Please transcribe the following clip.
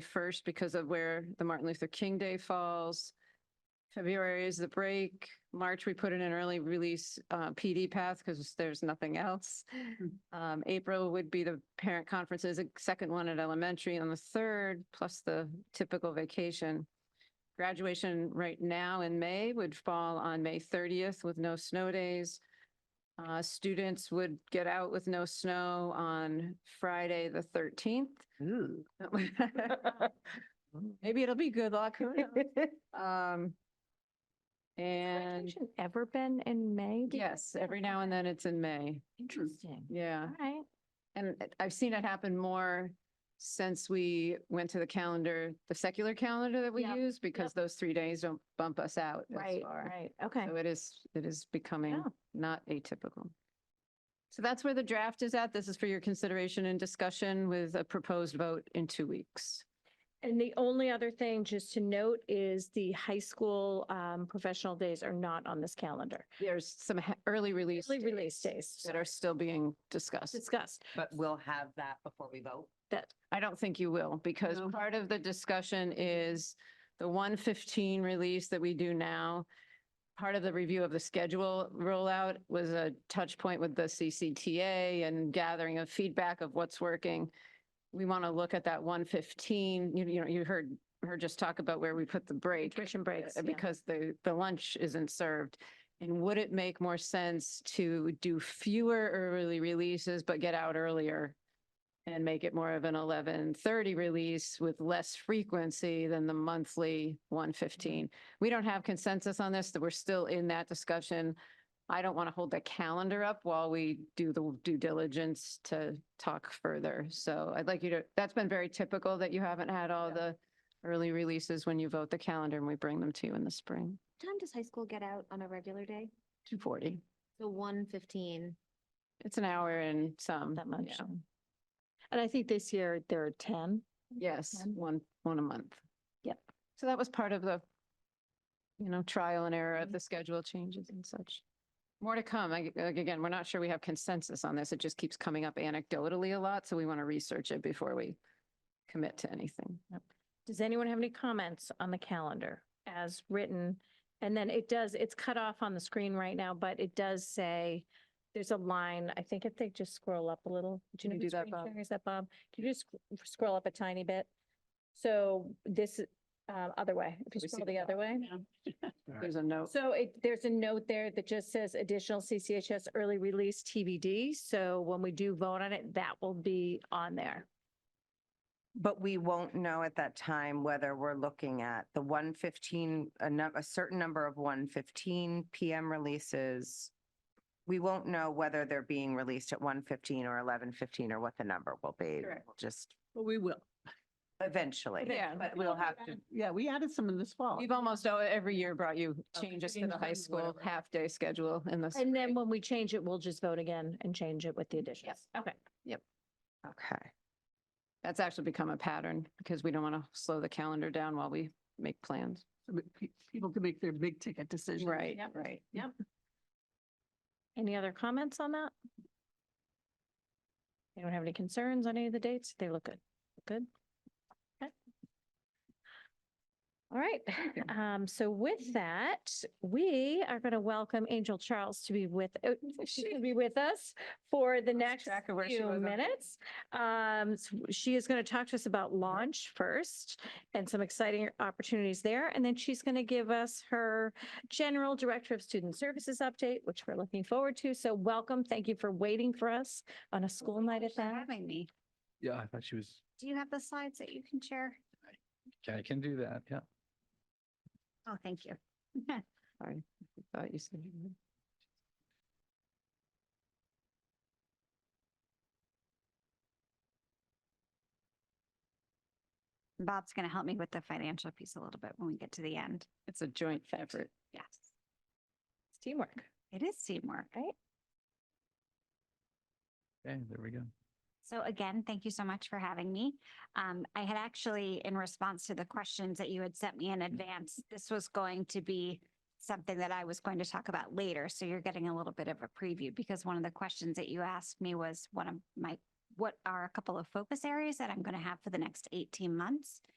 21st because of where the Martin Luther King Day falls. February is the break. March, we put in an early release uh, PD path because there's nothing else. Um, April would be the parent conferences, a second one at elementary on the third, plus the typical vacation. Graduation right now in May would fall on May 30th with no snow days. Uh, students would get out with no snow on Friday, the 13th. Maybe it'll be good luck, who knows? Um, And Graduation Ever been in May? Do you- yes, every now and then it's in May. Interesting. Yeah. All right. And it- I've seen it happen more since we went to the calendar, the secular calendar that we Yep, use, because those three days don't bump us out as Right, far. right. Oh. Okay. So it is, it is becoming Yeah. not atypical. So that's where the draft is at. This is for your consideration and discussion with a proposed vote in two weeks. And the only other thing just to note is the high school um, professional days are not on this calendar. There's some he- early release Early release days that are still being discussed. discussed. But we'll have that before we vote. That, I don't think you will, because No. part of the discussion is the one fifteen release that we do now. Part of the review of the schedule rollout was a touch point with the CCTA and gathering of feedback of what's working. We want to look at that one fifteen, you, you know, you heard her just talk about where we put the break. Nutrition breaks, uh, yeah. Because the, the lunch isn't served. And would it make more sense to do fewer early releases, but get out earlier and make it more of an eleven thirty release with less frequency than the monthly one fifteen. We don't have consensus on this, that we're still in that discussion. I don't want to hold the calendar up while we do the due diligence to talk further. So I'd like you to, that's been very typical that you haven't had all the early releases when you vote the calendar and we bring them to you in the spring, Time does high school get out on a regular day? two forty. So one fifteen. It's an hour and some. that much. yeah. And I think this year there are 10. Yes, Ten? one, one a month. Yep. So that was part of the, you know, trial and error of Mhm. the schedule changes and such. More to come. I- like, Again, we're not sure we have consensus on this. It just keeps coming up anecdotally a lot, so we want to research it before we commit to anything. Does anyone have any comments on the calendar as written? And then it does, it's cut off on the screen right now, but it does say, there's a line, I think if they just scroll up a little. Can know you who do that, screen Bob? share Is that Bob? Can you just sc- scroll up a tiny bit? So this, uh, other way, if We see you scroll the Oh. the other way. There's a note. So it, there's a note there that just says additional CCHS early release TBD. So when we do vote on it, that will be on there. But we won't know at that time whether we're looking at the one fifteen, a num, a certain number of one fifteen PM releases. We won't know whether they're being released at one fifteen or eleven fifteen or what the number will be. Correct. We'll Just Well, we will. eventually. Yeah. But we'll have to, Yeah, we added some in this fall. We've almost, oh, every year brought you Okay. changes to Change the high them, school whatever. half-day schedule in this. And then when we change it, we'll just vote again and change it with the additions. Okay. okay. That's actually become a pattern because we don't want to slow the calendar down while we make plans. So that pe- People can make their big ticket decisions. Right, right. Yep. Any other comments on that? You don't have any concerns on any of the dates? They look good. Good? Okay. All right. Um, so with that, we are going to welcome Angel Charles to be with, uh, she will be with us for the next track of where she few was on- minutes. Um, s- she is going to talk to us about launch first and some exciting opportunities there. And then she's going to give us her general director of student services update, which we're looking forward to. So welcome. Thank you for waiting for us on a school night at that. Having me. Yeah, I thought she was, Do you have the slides that you can share? I can do that, yeah. Oh, thank you. Sorry, I thought you said. you were- Bob's going to help me with the financial piece a little bit when we get to the end. It's a joint effort. Yes, It's teamwork. it is teamwork. Okay, there we go. So again, thank you so much for having me. Um, I had actually, in response to the questions that you had sent me in advance, this was going to be something that I was going to talk about later. So you're getting a little bit of a preview because one of the questions that you asked me was one of my what are a couple of focus areas that I'm going to have for the next 18 months.